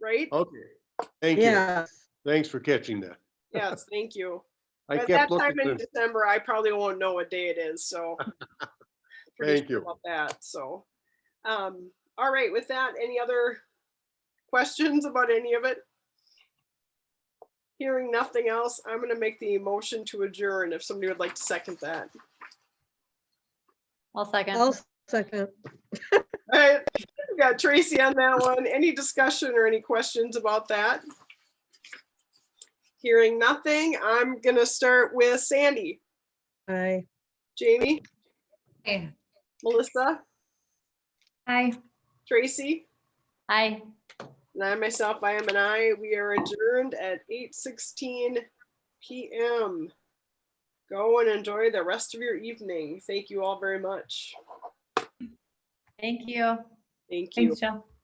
right? Okay, thank you. Yes, Thanks for catching that. Yes, thank you. I At that kept time in looking. December, I probably won't know what day it is, so. pretty Thank sure you. About that, so. Um, all right, with that, any other questions about any of it? Hearing nothing else, I'm gonna make the motion to adjourn if somebody would like to second that. I'll second. I'll second. All right, we got Tracy on that one. Any discussion or any questions about that? Hearing nothing, I'm gonna start with Sandy, Aye. Jamie, Melissa, Aye. Tracy. Aye. And I myself, I am an I. We are adjourned at eight sixteen PM. Go and enjoy the rest of your evening. Thank you all very much. Thank you. Thank you. Thanks, Jill.